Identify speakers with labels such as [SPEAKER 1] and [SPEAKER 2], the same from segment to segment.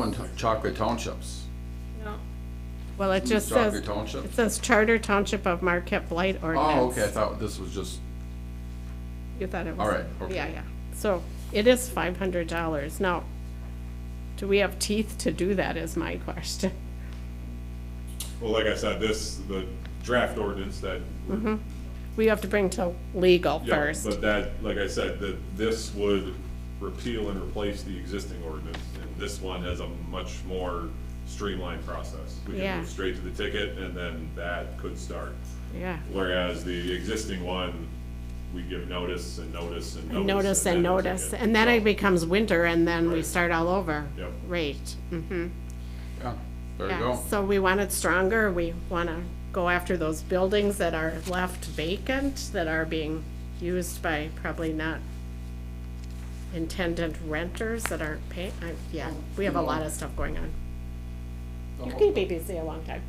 [SPEAKER 1] on to- Chocolate Townships.
[SPEAKER 2] No.
[SPEAKER 3] Well, it just
[SPEAKER 1] Chocolate
[SPEAKER 3] says,
[SPEAKER 1] Township?
[SPEAKER 3] it says Charter Township of Marquette Blight Ordinance.
[SPEAKER 1] Oh, okay, I thought this was just,
[SPEAKER 3] You thought it was.
[SPEAKER 1] All right, okay.
[SPEAKER 3] Yeah, yeah. So it is five hundred dollars. Now, do we have teeth to do that is my question.
[SPEAKER 4] Well, like I said, this, the draft ordinance that,
[SPEAKER 3] We have to bring to legal
[SPEAKER 4] yeah,
[SPEAKER 3] first.
[SPEAKER 4] but that, like I said, that this would repeal and replace the existing ordinance. And this one has a much more streamlined process. We
[SPEAKER 3] Yeah.
[SPEAKER 4] can move straight to the ticket and then that could start.
[SPEAKER 3] Yeah.
[SPEAKER 4] Whereas the existing one, we give notice and notice and notice.
[SPEAKER 3] Notice
[SPEAKER 4] then
[SPEAKER 3] and
[SPEAKER 4] a
[SPEAKER 3] notice,
[SPEAKER 4] ticket.
[SPEAKER 3] and then it
[SPEAKER 4] So-
[SPEAKER 3] becomes winter and then we
[SPEAKER 4] Right.
[SPEAKER 3] start all over.
[SPEAKER 4] Yep.
[SPEAKER 3] Right. Mm-hmm.
[SPEAKER 1] yeah, there you
[SPEAKER 3] Yeah,
[SPEAKER 1] go.
[SPEAKER 3] so we want it stronger, we want to go after those buildings that are left vacant, that are being used by probably not intended renters that aren't paying, yeah, we have a lot of stuff going on. You can be busy a long time.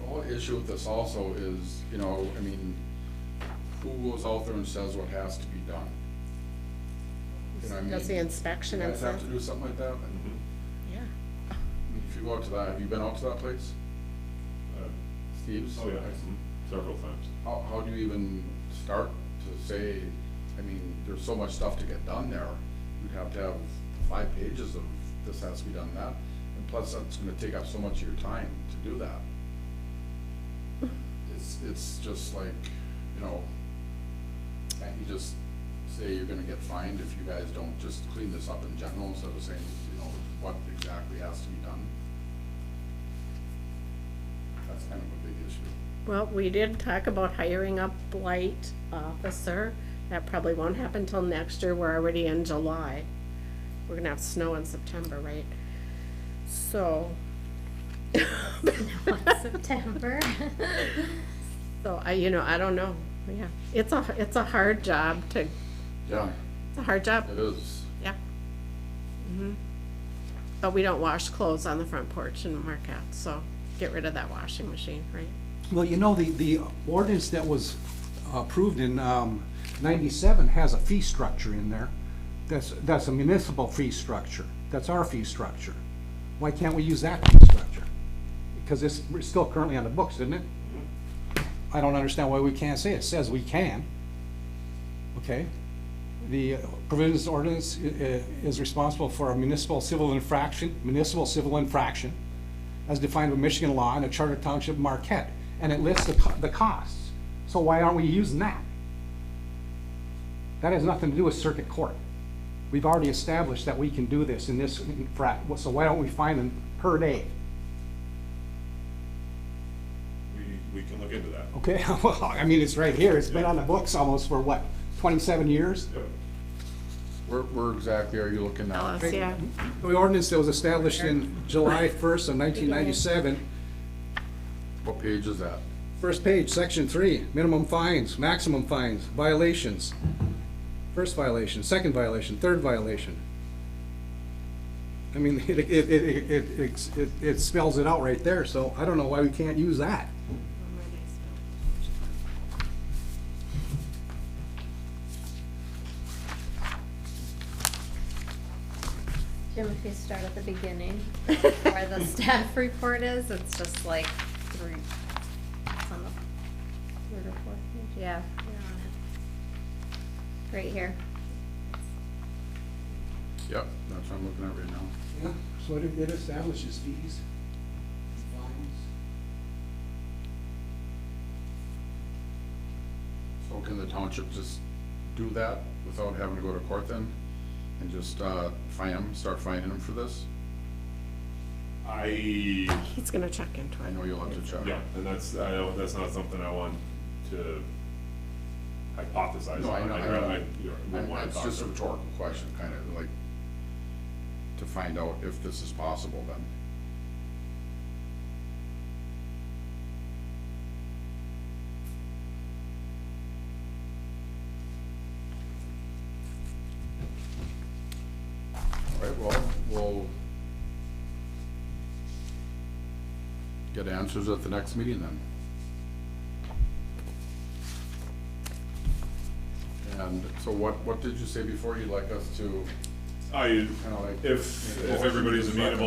[SPEAKER 1] The whole issue with this also is, you know, I mean, who goes out there and says what has to be done? You know what I mean?
[SPEAKER 3] Does the inspection
[SPEAKER 1] You
[SPEAKER 3] and
[SPEAKER 1] guys have
[SPEAKER 3] stuff,
[SPEAKER 1] to do something like that? And
[SPEAKER 4] mm-hmm.
[SPEAKER 3] yeah.
[SPEAKER 1] If you go out to that, have you been out to that place?
[SPEAKER 4] Uh,
[SPEAKER 1] Steve's?
[SPEAKER 4] Oh, yeah, mhm, several times.
[SPEAKER 1] How, how do you even start to say, I mean, there's so much stuff to get done there. You'd have to have five pages of this has to be done, that, and plus that's gonna take up so much of your time to do that. It's, it's just like, you know, can't you just say you're gonna get fined if you guys don't just clean this up in general instead of saying, you know, what exactly has to be done? That's kind of a big issue.
[SPEAKER 3] Well, we did talk about hiring a blight officer. That probably won't happen till next year. We're already in July. We're gonna have snow in September, right? So.
[SPEAKER 5] September.
[SPEAKER 3] So I, you know, I don't know. Yeah, it's a, it's a hard job to,
[SPEAKER 1] Yeah,
[SPEAKER 3] it's a hard job,
[SPEAKER 1] it is.
[SPEAKER 3] yeah. Mhm. But we don't wash clothes on the front porch in Marquette, so get rid of that washing machine, right?
[SPEAKER 6] Well, you know, the, the ordinance that was approved in um, ninety-seven has a fee structure in there. That's, that's a municipal fee structure. That's our fee structure. Why can't we use that fee structure? Because it's, we're still currently on the books, isn't it? I don't understand why we can't say it. It says we can. Okay? The provisions ordinance i- i- is responsible for a municipal civil infraction, municipal civil infraction, as defined by Michigan law in a charter township Marquette, and it lists the, co- the costs. So why aren't we using that? That has nothing to do with circuit court. We've already established that we can do this in this frat, so why don't we find them per day?
[SPEAKER 4] We, we can look into that.
[SPEAKER 6] Okay, well, I mean, it's right here, it's been on the books almost for what, twenty-seven years?
[SPEAKER 4] Yep.
[SPEAKER 1] Where, where exactly are you looking
[SPEAKER 3] Tell
[SPEAKER 1] at?
[SPEAKER 3] us, yeah.
[SPEAKER 6] The ordinance that was established in July first of nineteen ninety-seven
[SPEAKER 1] What page is that?
[SPEAKER 6] First page, section three, minimum fines, maximum fines, violations. First violation, second violation, third violation. I mean, it, it, it, it- it, it's- it, it spells it out right there, so I don't know why we can't use that.
[SPEAKER 5] Jim, if you start at the beginning, where the staff report is, it's just like three, it's on the third or fourth page, yeah, you're on it. Right here.
[SPEAKER 1] Yep, that's what I'm looking at right now.
[SPEAKER 6] Yeah, so it, it establishes fees, fines.
[SPEAKER 1] So can the township just do that without having to go to court then? And just, uh, fine them, start fining them for this?
[SPEAKER 4] I
[SPEAKER 3] He's gonna check into
[SPEAKER 1] I
[SPEAKER 3] it.
[SPEAKER 1] know you'll have to check.
[SPEAKER 4] Yeah, and that's, I don't, that's not something I want to hypothesize
[SPEAKER 1] No, I
[SPEAKER 4] on.
[SPEAKER 1] know,
[SPEAKER 4] I'd
[SPEAKER 1] I
[SPEAKER 4] rather,
[SPEAKER 1] know.
[SPEAKER 4] I, you know, wouldn't
[SPEAKER 1] I-
[SPEAKER 4] wanna
[SPEAKER 1] It's
[SPEAKER 4] talk
[SPEAKER 1] just
[SPEAKER 4] to
[SPEAKER 1] a
[SPEAKER 4] them.
[SPEAKER 1] rhetorical question, kind of like, to find out if this is possible then. All right, well, we'll get answers at the next meeting then. And so what, what did you say before you'd like us to
[SPEAKER 4] I,
[SPEAKER 1] Kinda like-
[SPEAKER 4] if, if everybody's amenable